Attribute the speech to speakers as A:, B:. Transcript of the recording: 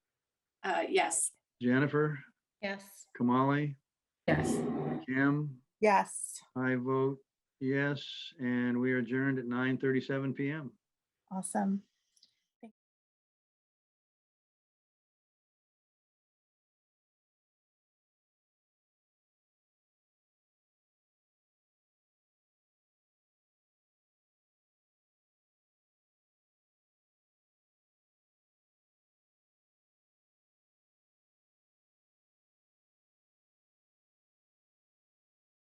A: Uh, yes,
B: Jennifer,
C: Yes.
B: Kamali,
D: Yes.
B: Kim,
E: Yes.
B: I vote yes, and we are adjourned at nine thirty-seven PM.
E: Awesome.